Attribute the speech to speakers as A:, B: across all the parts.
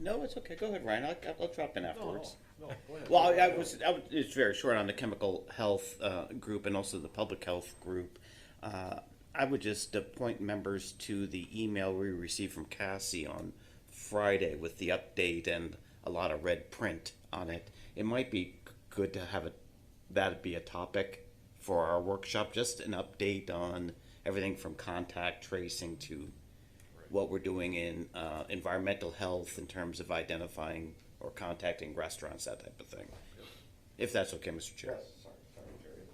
A: No, it's okay. Go ahead, Ryan. I'll, I'll- I'll drop in afterwards.
B: No, no, go ahead.
A: Well, I, I was, I was, it's very short on the chemical health uh, group and also the public health group. Uh, I would just appoint members to the email we received from Cassie on Friday with the update and a lot of red print on it. It might be good to have it, that'd be a topic for our workshop, just an update on everything from contact tracing to what we're doing in uh, environmental health in terms of identifying or contacting restaurants, that type of thing. If that's okay, Mr. Chair.
C: sorry, sorry, Jerry.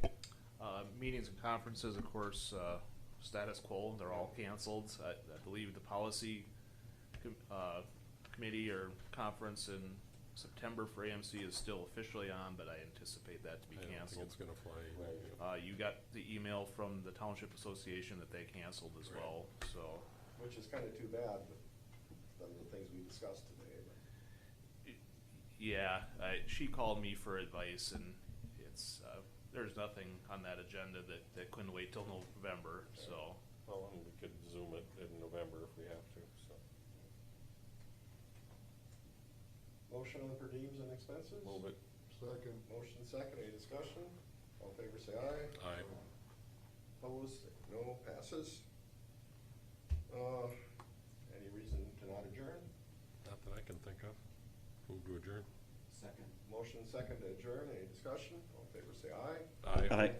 B: Brian?
D: Uh, meetings and conferences, of course, uh, status quo, they're all canceled. I, I believe the policy com- uh, committee or conference in September for AMC is still officially on, but I anticipate that to be
E: I don't think
D: canceled.
E: it's gonna fly.
D: Uh, you got the email from the Township Association that they canceled as
E: Right.
D: well, so,
C: Which is kind of too bad, but some of the things we discussed today, but.
D: yeah, I, she called me for advice and it's, uh, there's nothing on that agenda that, that couldn't wait till November, so.
E: Well, and we could zoom it in November if we have to, so.
C: Motion on per diems and expenses?
E: Move it.
C: Second. Motion second, any discussion? All in favor, say aye.
E: Aye.
C: Opposed, no, passes. Uh, any reason to not adjourn?
E: Not that I can think of. Move to adjourn.
C: Second. Motion second to adjourn, any discussion? All in favor, say aye.
A: Aye.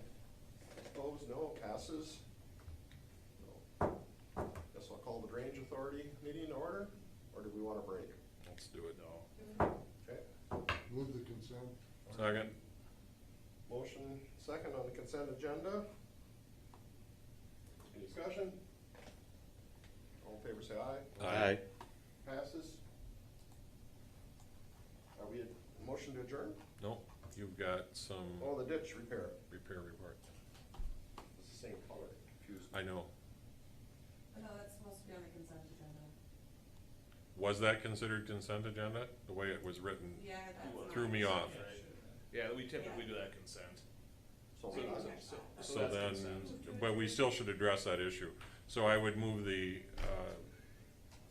C: Opposed, no, passes. Guess I'll call the Drainage Authority meeting in order, or do we want a break?
E: Let's do it.
C: Okay.
F: Move the consent.
E: Second.
C: Motion second on the consent agenda. Any discussion? All in favor, say aye.
E: Aye.
C: Passes. Are we, motion to adjourn?
E: No, you've got
A: Mm-hmm.
E: some
C: Oh, the ditch repair.
E: repair report.
C: It's the same color, confused.
E: I know.
G: No, that's supposed to be on the consent agenda.
E: Was that considered consent agenda? The way it was written
G: Yeah, that's. not-
E: threw me off.
D: Yeah, we typically do that consent.
C: So
D: So-
C: we're not-
D: so- so
E: So
D: that's
E: then,
D: consent.
E: but we still should address that issue. So I would move the, uh,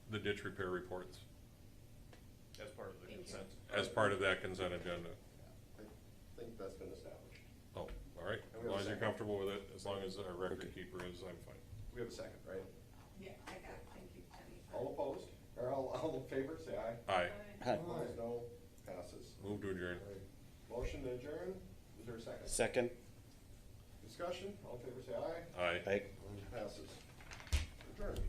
E: the ditch repair reports
D: As part of the
G: Thank you.
D: consent.
E: as part of that consent agenda.
C: I think that's been established.
E: Oh, all right. As long as you're comfortable with it, as long as our record keeper is, I'm fine.
C: We have a second, right?
G: Yeah, I got it, thank you, Jenny.
C: All opposed, or all, all in favor, say aye.
E: Aye.
A: Aye.
C: Opposed, no, passes.
E: Move to adjourn.
C: Motion to adjourn, is there a second?
A: Second.
C: Discussion, all in favor, say aye.
E: Aye.
A: Aye.
C: Passes. Adjourned.